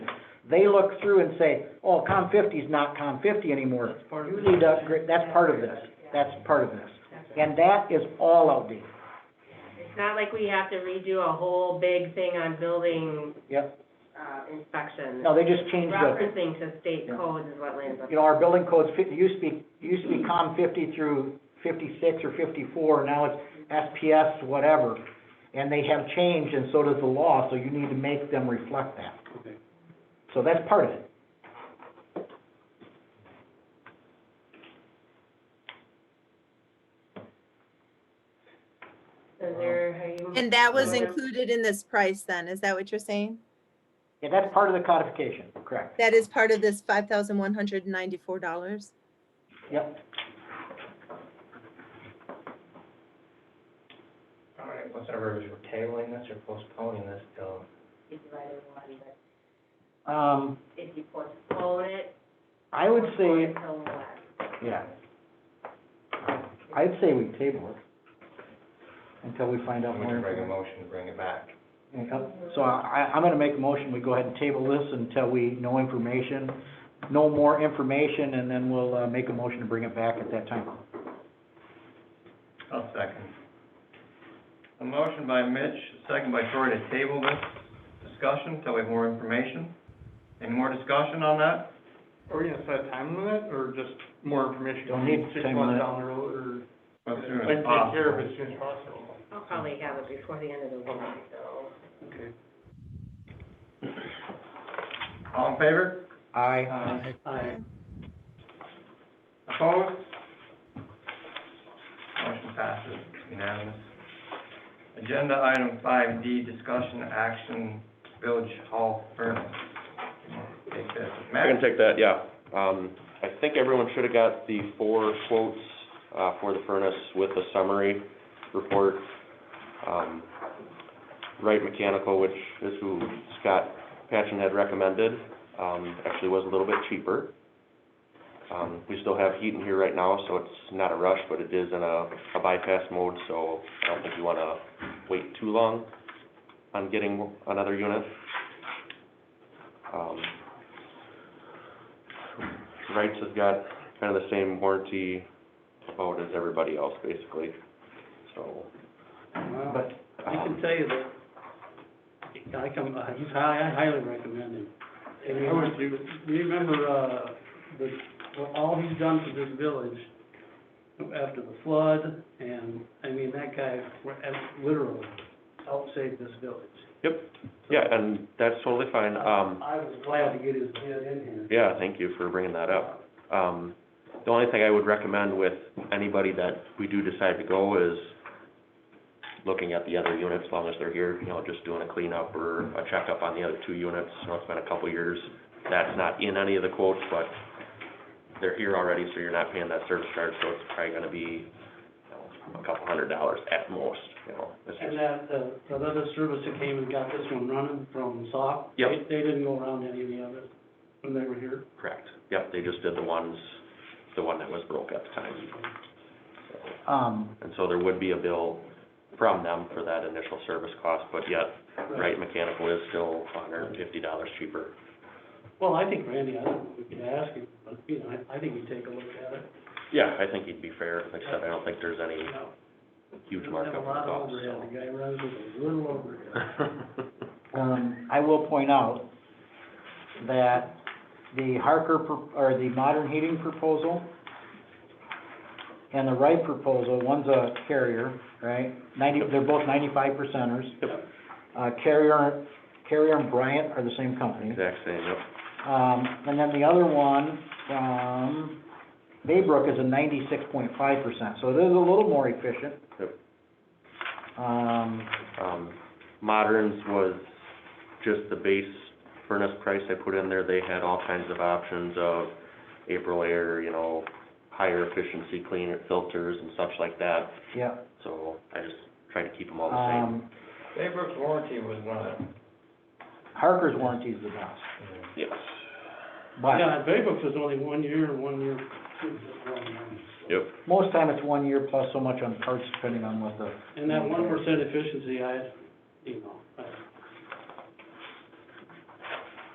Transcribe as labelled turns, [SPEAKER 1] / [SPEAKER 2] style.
[SPEAKER 1] They look through and say, oh, COM fifty's not COM fifty anymore.
[SPEAKER 2] That's part of
[SPEAKER 1] You
[SPEAKER 2] it.
[SPEAKER 1] need to upgrade, that's part of this, that's part of this. And that is all outdated.
[SPEAKER 3] It's not like we have to redo a whole big thing on building.
[SPEAKER 1] Yep.
[SPEAKER 3] Uh, inspection.
[SPEAKER 1] No, they just changed the,
[SPEAKER 3] Referencing to state
[SPEAKER 1] Yeah.
[SPEAKER 3] codes is what lands up.
[SPEAKER 1] you know, our building codes, fit- it used to be, it used to be COM fifty through fifty-six or fifty-four, now it's SPS, whatever. And they have changed, and so does the law, so you need to make them reflect that.
[SPEAKER 2] Okay.
[SPEAKER 1] So that's part of it.
[SPEAKER 3] Is there, how you?
[SPEAKER 4] And that was
[SPEAKER 3] Yeah.
[SPEAKER 4] included in this price then, is that what you're saying?
[SPEAKER 1] Yeah, that's part of the codification, correct.
[SPEAKER 4] That is part of this five thousand one hundred and ninety-four dollars?
[SPEAKER 1] Yep.
[SPEAKER 5] All right, whatever, if we're tabling this or postponing this till,
[SPEAKER 3] If you either one, but
[SPEAKER 1] Um,
[SPEAKER 3] if you postpone it.
[SPEAKER 1] I would
[SPEAKER 3] postpone
[SPEAKER 1] say,
[SPEAKER 3] it till what?
[SPEAKER 1] yeah. I'd say we table it until we find out
[SPEAKER 5] I'm gonna bring a
[SPEAKER 1] more.
[SPEAKER 5] motion to bring it back.
[SPEAKER 1] Yep. So I, I'm gonna make a motion, we go ahead and table this until we know information, know more information, and then we'll, uh, make a motion to bring it back at that time.
[SPEAKER 6] I'll second. A motion by Mitch, a second by Troy to table this discussion till we have more information. Any more discussion on that?
[SPEAKER 2] Are we gonna set a time limit, or just more information?
[SPEAKER 1] Don't need
[SPEAKER 2] Six
[SPEAKER 1] time
[SPEAKER 2] months
[SPEAKER 1] limit. Ah.
[SPEAKER 2] down the road, or?
[SPEAKER 6] As soon as
[SPEAKER 2] Like, take care of
[SPEAKER 6] possible.
[SPEAKER 2] it as soon as possible.
[SPEAKER 3] I'll probably have it before the end of the week, so.
[SPEAKER 2] Okay.
[SPEAKER 6] All in favor?
[SPEAKER 1] Aye.
[SPEAKER 2] Aye.
[SPEAKER 6] Opposed? Motion passes unanimous. Agenda item five D, discussion action, village hall furnace. Take this.
[SPEAKER 7] I can
[SPEAKER 6] Matt?
[SPEAKER 7] take that, yeah. Um, I think everyone should have got the four quotes, uh, for the furnace with the summary report. Um, Wright Mechanical, which is who Scott Patchen had recommended, um, actually was a little bit cheaper. Um, we still have heat in here right now, so it's not a rush, but it is in a, a bypass mode, so I don't think you wanna wait too long on getting another unit. Um, Wrights has got kind of the same warranty about as everybody else, basically, so. um,
[SPEAKER 1] But,
[SPEAKER 8] I can tell you that, I come, uh, he's high, I highly recommend him. And you know, you remember, uh, the, what all he's done for this village after the flood, and, I mean, that guy wa- uh, literally helped save this village.
[SPEAKER 7] Yep, yeah, and that's totally fine, um,
[SPEAKER 8] I was glad to get his bid in here.
[SPEAKER 7] yeah, thank you for bringing that up. Um, the only thing I would recommend with anybody that we do decide to go is looking at the other units, as long as they're here, you know, just doing a cleanup or a checkup on the other two units. You know, it's been a couple years. That's not in any of the quotes, but they're here already, so you're not paying that service charge, so it's probably gonna be, you know, a couple hundred dollars at most, you know, it's
[SPEAKER 8] And
[SPEAKER 7] just,
[SPEAKER 8] that, the, the other service that came and got this one running from SOC.
[SPEAKER 7] Yep.
[SPEAKER 8] They, they didn't go around any of the others when they were here.
[SPEAKER 7] correct. Yep, they just did the ones, the one that was broke at the time. So.
[SPEAKER 1] um,
[SPEAKER 7] And so there would be a bill from them for that initial service cost, but yet Wright Mechanical is still hundred and fifty dollars cheaper.
[SPEAKER 8] Well, I think Randy, I don't know if we could ask him, but, you know, I, I think he'd take a look at it,
[SPEAKER 7] Yeah, I think he'd be fair. Like I said, I don't think there's any
[SPEAKER 8] you know.
[SPEAKER 7] huge
[SPEAKER 8] Doesn't
[SPEAKER 7] markup
[SPEAKER 8] Have
[SPEAKER 7] on the
[SPEAKER 8] a lot of
[SPEAKER 7] cost,
[SPEAKER 8] overhead,
[SPEAKER 7] so.
[SPEAKER 8] the guy runs with a little overhead.
[SPEAKER 1] Um, I will point out that the Harker, pro- or the modern heating proposal and the Wright proposal, one's a carrier, right? Ninety, they're both ninety-five percenters.
[SPEAKER 7] Yep.
[SPEAKER 1] Uh, Carrier, Carrier and Bryant are the same company.
[SPEAKER 7] Exact same, yep.
[SPEAKER 1] Um, and then the other one, um, Baybrook is a ninety-six point five percent, so it is a little more efficient.
[SPEAKER 7] Yep.
[SPEAKER 1] Um,
[SPEAKER 7] Um, Moderns was just the base furnace price I put in there. They had all kinds of options of April air, you know, higher efficiency cleaner filters and such like that.
[SPEAKER 1] yeah,
[SPEAKER 7] So I just tried to keep them all the same.
[SPEAKER 1] um,
[SPEAKER 6] Baybrook's warranty was not,
[SPEAKER 1] Harker's warranty is the best.
[SPEAKER 7] Yes.
[SPEAKER 1] But
[SPEAKER 8] Yeah, Baybrook's was only one year, one year, two, just one year.
[SPEAKER 7] Yep.
[SPEAKER 1] most time it's one year plus so much on parts depending on what the,
[SPEAKER 8] And that one percent efficiency, I, you know, I